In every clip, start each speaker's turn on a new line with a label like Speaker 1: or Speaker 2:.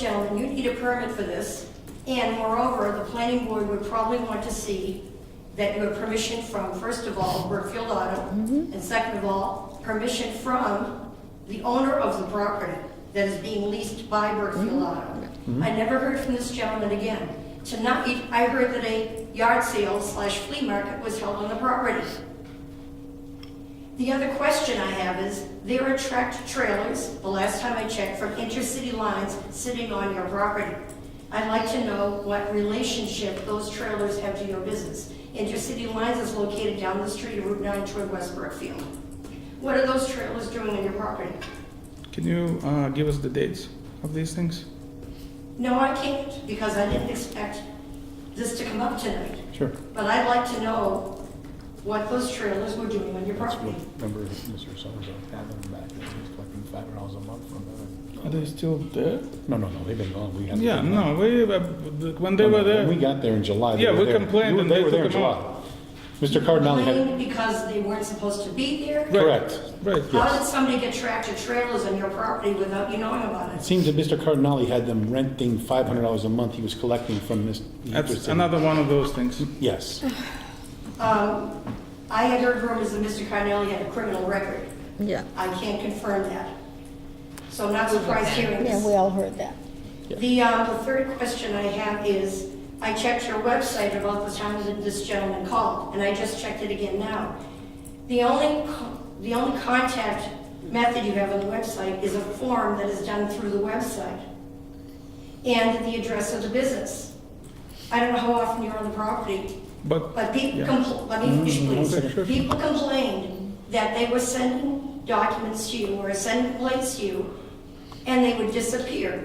Speaker 1: gentlemen, you need a permit for this. And moreover, the planning board would probably want to see that you have permission from, first of all, Brookfield Auto, and second of all, permission from the owner of the property that is being leased by Brookfield Auto. I never heard from this gentleman again. Tonight, I heard that a yard sale slash flea market was held on the property. The other question I have is, there are tractor trailers, the last time I checked, from intercity lines sitting on your property. I'd like to know what relationship those trailers have to your business. Intercity lines is located down the street of Route 9 toward West Brookfield. What are those trailers doing on your property?
Speaker 2: Can you uh, give us the dates of these things?
Speaker 1: No, I can't, because I didn't expect this to come up tonight.
Speaker 2: Sure.
Speaker 1: But I'd like to know what those trailers were doing on your
Speaker 3: That's
Speaker 1: property.
Speaker 3: what member Mr. Summers had them back, there. he was collecting five dollars a month from them.
Speaker 2: Are they still there?
Speaker 3: No, no, no, they've been gone, we had.
Speaker 2: Yeah, no, we, uh, when they were
Speaker 3: When we
Speaker 2: there,
Speaker 3: got there in July. they
Speaker 2: Yeah,
Speaker 3: were
Speaker 2: we
Speaker 3: there.
Speaker 2: complained
Speaker 3: You-
Speaker 2: and
Speaker 3: They
Speaker 2: they
Speaker 3: were there in
Speaker 2: took them
Speaker 3: July. Mr. Cardinale had,
Speaker 1: Complaining because they weren't supposed to be there.
Speaker 3: correct.
Speaker 2: right.
Speaker 1: How did somebody get tractor trailers on your property without you knowing about
Speaker 3: It
Speaker 1: it?
Speaker 3: seems that Mr. Cardinale had them renting five hundred dollars a month he was collecting from this.
Speaker 2: That's another one of those things.
Speaker 3: Yes,
Speaker 1: Um, I had heard rumors that Mr. Carnelli had a criminal record.
Speaker 4: Yeah,
Speaker 1: I can't confirm that. So I'm not surprised hearing
Speaker 4: yeah, we
Speaker 1: this.
Speaker 4: all heard that.
Speaker 1: The, um, the third question I have is, I checked your website about the time that this gentleman called, and I just checked it again now. The only, co- the only contact method you have on the website is a form that is done through the website and the address of the business. I don't know how often you're on the property,
Speaker 2: But,
Speaker 1: but people,
Speaker 2: Yeah.
Speaker 1: compl- let me finish,
Speaker 2: Mm, okay, sure.
Speaker 1: please. People complained that they were sending documents to you or sending plates to you, and they would disappear.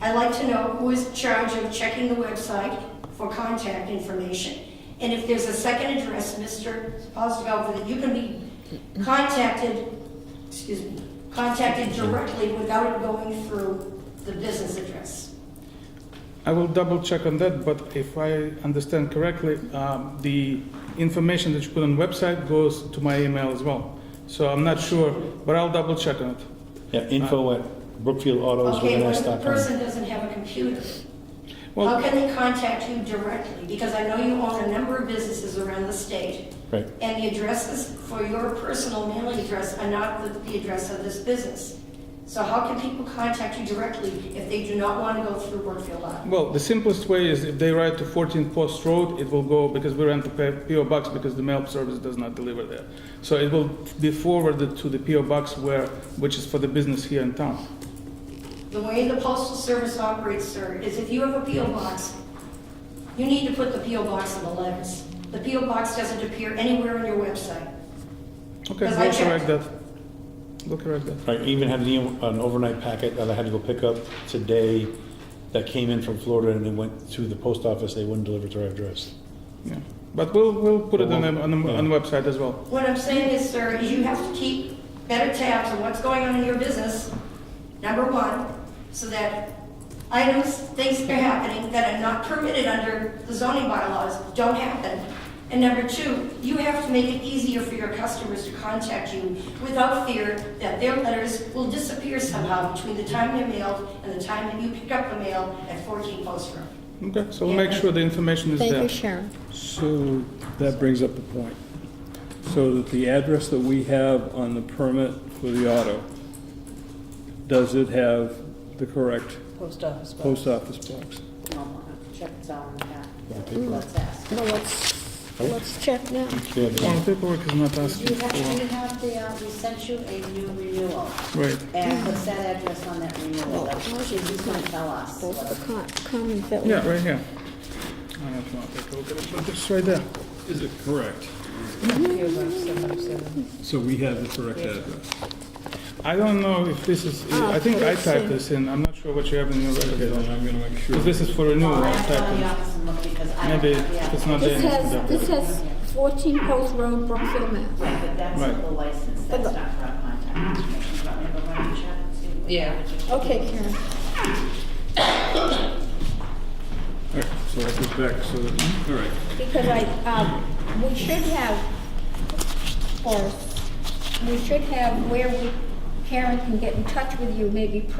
Speaker 1: I'd like to know who is in charge of checking the website for contact information. And if there's a second address, Mr. Postelveld, that you can be contacted, excuse me, contacted directly without it going through the business address.
Speaker 2: I will double check on that, but if I understand correctly, um, the information that you put on website goes to my email as well. So I'm not sure, but I'll double check on it.
Speaker 3: yeah,
Speaker 2: Uh,
Speaker 3: info at
Speaker 2: Oh,
Speaker 3: brookfieldautos with
Speaker 1: Okay,
Speaker 3: an
Speaker 1: what
Speaker 3: S
Speaker 1: if the
Speaker 3: dot com.
Speaker 1: person doesn't have a computer? How
Speaker 2: Well,
Speaker 1: can they contact you directly? Because I know you own a number of businesses around the state,
Speaker 3: Right,
Speaker 1: and the addresses for your personal mailing address are not the, the address of this business. So how can people contact you directly if they do not want to go through Brookfield Live?
Speaker 2: well, the simplest way is if they write to 14 Post Road, it will go, because we rent the P- PO Box because the mail service does not deliver there. So it will be forwarded to the PO Box where, which is for the business here in town.
Speaker 1: The way the postal service operates, sir, is if you have a PO box, you need to put the PO box in the letters. The PO box doesn't appear anywhere on your website.
Speaker 2: Okay,
Speaker 1: Because I
Speaker 2: we'll
Speaker 1: checked.
Speaker 2: correct that. We'll correct that.
Speaker 3: right, even had an an overnight packet that I had to go pick up today that came in from Florida and it went to the post office, they wouldn't deliver to our address.
Speaker 2: Yeah, but we'll, we'll put it on the, on the, on the website as well.
Speaker 1: What I'm saying is, sir, is you have to keep better tabs on what's going on in your business, number one, so that items, things that are happening that are not permitted under the zoning bylaws don't happen. And number two, you have to make it easier for your customers to contact you without fear that their letters will disappear somehow between the time they're mailed and the time that you pick up the mail at 14 Post Road.
Speaker 2: Okay, so we'll make sure the information is
Speaker 4: Thank
Speaker 2: there.
Speaker 4: you, Sharon.
Speaker 5: So that brings up the point. So that the address that we have on the permit for the auto, does it have the correct
Speaker 6: Post office box.
Speaker 5: post office box?
Speaker 6: Well, I'll Check this out in the back.
Speaker 3: paper.
Speaker 6: Let's ask.
Speaker 4: Well, let's, let's check now.
Speaker 3: Yeah, they-
Speaker 2: Well, the paperwork is not asked
Speaker 6: You have,
Speaker 2: for.
Speaker 6: you have the, uh, we sent you a new renewal,
Speaker 2: Right,
Speaker 6: and what's that address on that renewal? That's- She's gonna tell us.
Speaker 4: Both
Speaker 6: what-
Speaker 4: the con, con that we.
Speaker 2: yeah, right here. I have to take a look at it, but it's right there.
Speaker 5: Is it correct? So we have the correct address.
Speaker 2: I don't know if this is,
Speaker 4: Ah,
Speaker 2: I think I typed this in, I'm not sure what you have in your
Speaker 5: Okay, then
Speaker 2: record.
Speaker 5: I'm gonna make sure.
Speaker 2: Because this is for renewal,
Speaker 6: Well,
Speaker 2: I
Speaker 6: I have to go in the
Speaker 2: typed
Speaker 6: office and look because I
Speaker 2: in.
Speaker 6: don't
Speaker 2: Maybe
Speaker 6: have the
Speaker 2: it's
Speaker 6: address.
Speaker 2: not there.
Speaker 4: This has, this has fourteen Post Road, Brookfield, Mass.
Speaker 6: Right, but that's
Speaker 2: Right.
Speaker 6: the license, that's not for our contact information, but maybe why don't you check and see what-
Speaker 7: Yeah.
Speaker 4: Okay, Karen.
Speaker 5: All right, so I put back, so, that- all right.
Speaker 4: Because I, um, we should have, or, we should have where we, Karen can get in touch with you maybe